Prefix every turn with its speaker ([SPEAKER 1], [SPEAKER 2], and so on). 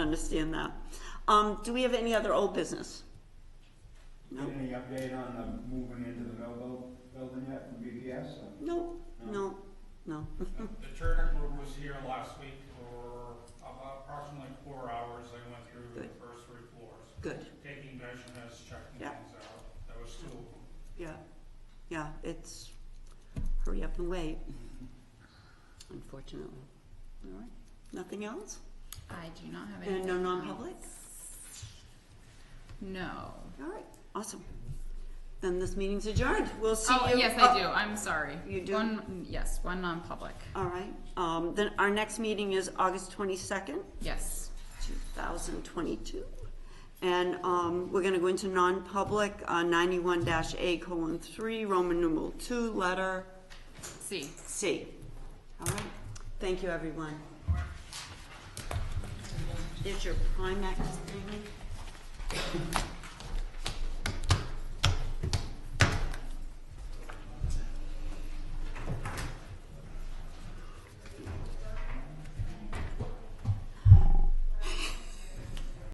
[SPEAKER 1] Understand that. Um, do we have any other old business? No.
[SPEAKER 2] Any update on the moving into the Melville building yet from BPS?
[SPEAKER 1] No, no, no.
[SPEAKER 3] The Turner Group was here last week for about approximately four hours. They went through the
[SPEAKER 1] Good.
[SPEAKER 3] first three floors,
[SPEAKER 1] Good,
[SPEAKER 3] taking measurements, checking
[SPEAKER 1] Yeah.
[SPEAKER 3] things out. That was two of them.
[SPEAKER 1] yeah, yeah, it's hurry up and wait, unfortunately. All right, nothing else?
[SPEAKER 4] I do not have
[SPEAKER 1] And no
[SPEAKER 4] any.
[SPEAKER 1] non-public?
[SPEAKER 4] No.
[SPEAKER 1] All right, awesome. Then this meeting's adjourned. We'll see
[SPEAKER 4] Oh,
[SPEAKER 1] you.
[SPEAKER 4] yes, I do. I'm sorry.
[SPEAKER 1] You do?
[SPEAKER 4] One, yes, one non-public.
[SPEAKER 1] All right, um, then our next meeting is August twenty-second.
[SPEAKER 4] Yes.
[SPEAKER 1] 2022. And um, we're going to go into non-public, uh, 91-A colon 3, Roman numeral 2, letter
[SPEAKER 4] See.
[SPEAKER 1] C. All right, thank you, everyone. Is your Primex thing?